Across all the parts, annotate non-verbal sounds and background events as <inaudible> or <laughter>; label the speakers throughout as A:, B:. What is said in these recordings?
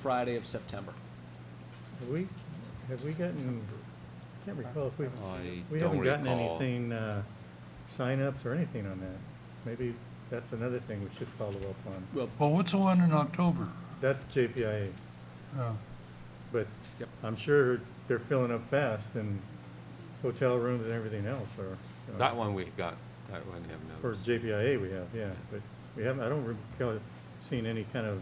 A: Friday of September.
B: Have we, have we gotten, I can't recall if we,
C: I
B: we
C: don't
B: haven't gotten
C: recall.
B: anything, uh, signups or anything on that. Maybe that's another thing we should follow up on.
A: Well,
D: Well, what's the one in October?
B: That's JPIA,
D: Uh,
B: but
A: Yep.
B: I'm sure they're filling up fast and hotel rooms and everything else are. uh,
C: That one we got, that one have
B: For
C: noticed.
B: JPIA we have, yeah, but we haven't, I don't recall seeing any kind of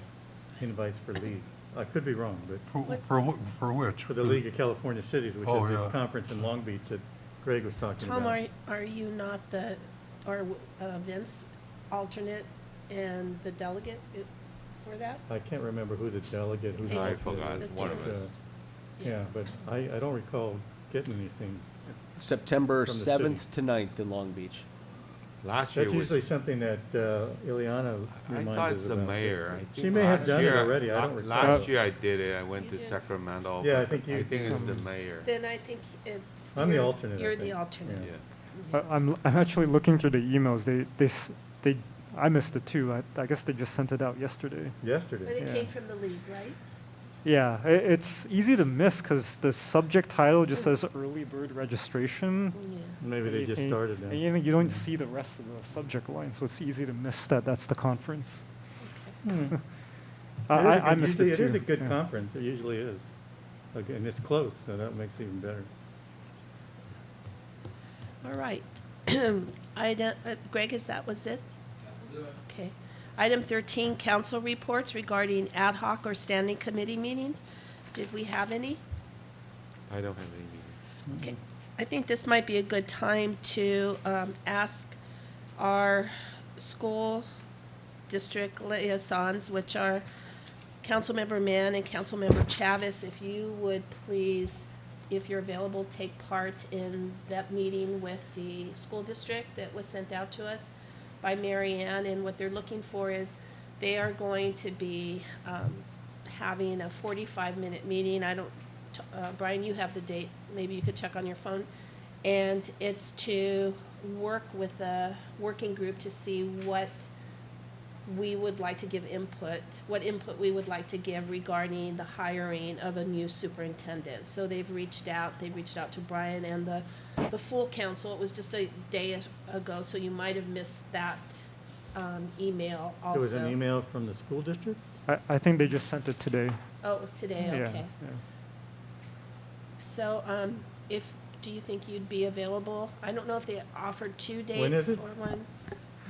B: invites for league. I could be wrong, but
D: For, for wh- for which?
B: for the League of California Cities, which is
D: Hmm. Oh,
B: the
D: yeah.
B: conference in Long Beach that Greg was talking about.
E: Tom, are, are you not the, or uh, Vince, alternate and the delegate i- for that?
B: I can't remember who the delegate, who the.
C: I
E: Hey,
C: forgot,
B: alternate is,
C: one of
B: but, uh,
C: us.
B: Yeah, but I, I don't recall getting anything.
A: September
B: From the
A: seventh to 9th in Long Beach.
C: Last year
B: That's
C: was,
B: usually something that uh, Ileana
C: I
B: reminds us about.
C: thought it's the mayor. I
B: She
C: think
B: may have
C: last
B: done it
C: year-
B: already, I
C: uh,
B: don't recall.
C: Last year I did it, I went
E: You
C: to
E: did.
C: Sacramento.
B: Yeah, I
C: but
B: think you-
C: I think it's the mayor,
E: Then I think it.
B: I'm the
E: you're-
B: alternate, I
E: You're the
B: think.
C: yeah.
E: alternate.
F: I- I'm, I'm actually looking through the emails. They, they, s- they, I missed it too. I, I guess they just sent it out yesterday.
E: But
B: Yesterday,
E: it
F: Yeah.
E: came from the league, right?
F: Yeah, i it's easy to miss because the subject title just says early bird registration.
E: Yeah.
B: maybe they
F: and-
B: just
F: and-
B: started
F: and
B: now.
F: you, you don't see the rest of the subject line, so it's easy to miss that that's the conference. I,
B: It is a
F: I, I
B: good-
F: missed
B: usually
F: it too.
B: It is a good
F: yeah.
B: conference, it usually is. Like, And it's close, so that makes it even better.
E: All right. <clears throat> Item, uh, Greg, is that was it? Okay. Item thirteen, council reports regarding ad hoc or standing committee meetings. Did we have any?
C: I don't have any meetings.
E: Okay, I think this might be a good time to um, ask our school district liaisons, which are Councilmember Mann and Councilmember Chavez, if you would please, if you're available, take part in that meeting with the school district that was sent out to us by Mary Ann. And what they're looking for is, they are going to be um, having a 45-minute meeting. I don't, t- uh, Brian, you have the date, maybe you could check on your phone. And it's to work with a working group to see what we would like to give input, what input we would like to give regarding the hiring of a new superintendent. So they've reached out, they reached out to Brian and the, the full council. It was just a day ago, so you might have missed that, um, email also.
B: There was an email from the school district?
F: I, I think they just sent it today.
E: Oh, it was today,
F: Yeah,
E: okay.
F: yeah.
E: So, um, if, do you think you'd be available? I don't know if they offered two
B: When is
E: dates or
B: it?
E: one.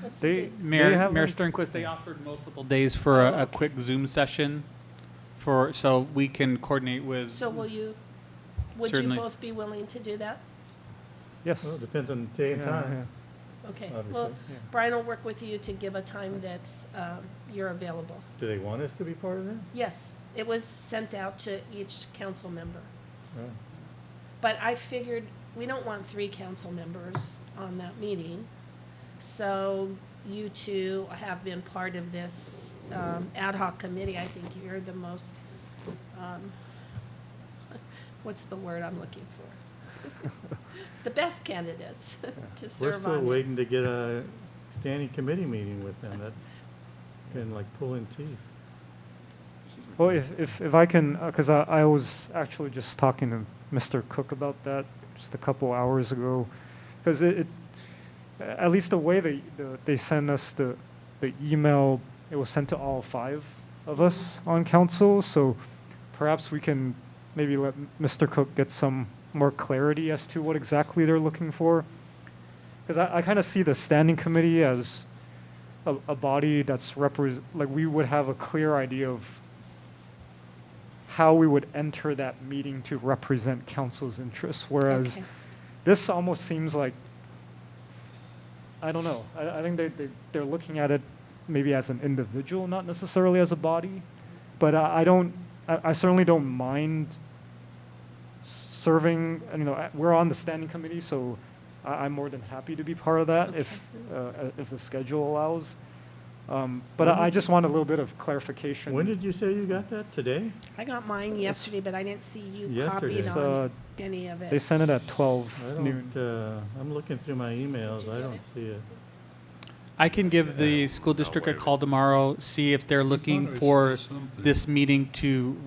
E: What's the
F: They-
E: date?
F: They
G: Mayor,
F: have
G: Mayor
F: like-
G: Sternquist, they offered multiple days for a, a quick Zoom session for, so we can coordinate with.
E: So will you, would you
G: Certainly.
E: both be willing to do that?
F: Yes.
B: Well, it depends on the day and
F: Yeah,
B: time.
E: Okay, well,
B: Obviously.
F: yeah, yeah.
E: Brian will work with you to give a time that's, um, you're available.
B: Do they want us to be part of that?
E: Yes, it was sent out to each council member.
B: Oh.
E: But I figured, we don't want three council members on that meeting. So you two have been part of this um, ad hoc committee. I think you're the most, um, <laughs> what's the word I'm looking for? <laughs> The best candidates <laughs> to
B: We're
E: serve
B: still
E: on it.
B: waiting to get a standing committee meeting with them. That's been like pulling teeth.
F: Well, if, if, if I can, because I, I was actually just talking to Mr. Cook about that just a couple hours ago, because it, it, a- at least the way they, the, they sent us the, the email, it was sent to all five of us on council, so perhaps we can maybe let M- Mr. Cook get some more clarity as to what exactly they're looking for. Because I, I kind of see the standing committee as a, a body that's repres like we would have a clear idea of how we would enter that meeting to represent council's interests, whereas
E: Okay.
F: this almost seems like I don't know. I, I think they, they they're looking at it maybe as an individual, not necessarily as a body. But I, I don't. I, I certainly don't mind serving. and, You know, I- we're on the standing committee, so I, I'm more than happy to be part of that if uh, uh, if the schedule allows. Um, but
B: When
F: I, I
B: did-
F: just want a little bit of clarification.
B: When did you say you got that? Today?
E: I got mine yesterday, but I didn't see you
B: Yesterday.
E: copied
F: It's,
E: on
F: uh,
E: any of it.
F: they sent it at
B: I
F: 12 noon?
B: don't, uh, I'm looking through my emails. I don't see it.
G: I can give the school district a call tomorrow, see if they're looking
D: I thought I
G: for
D: saw something.
G: this meeting to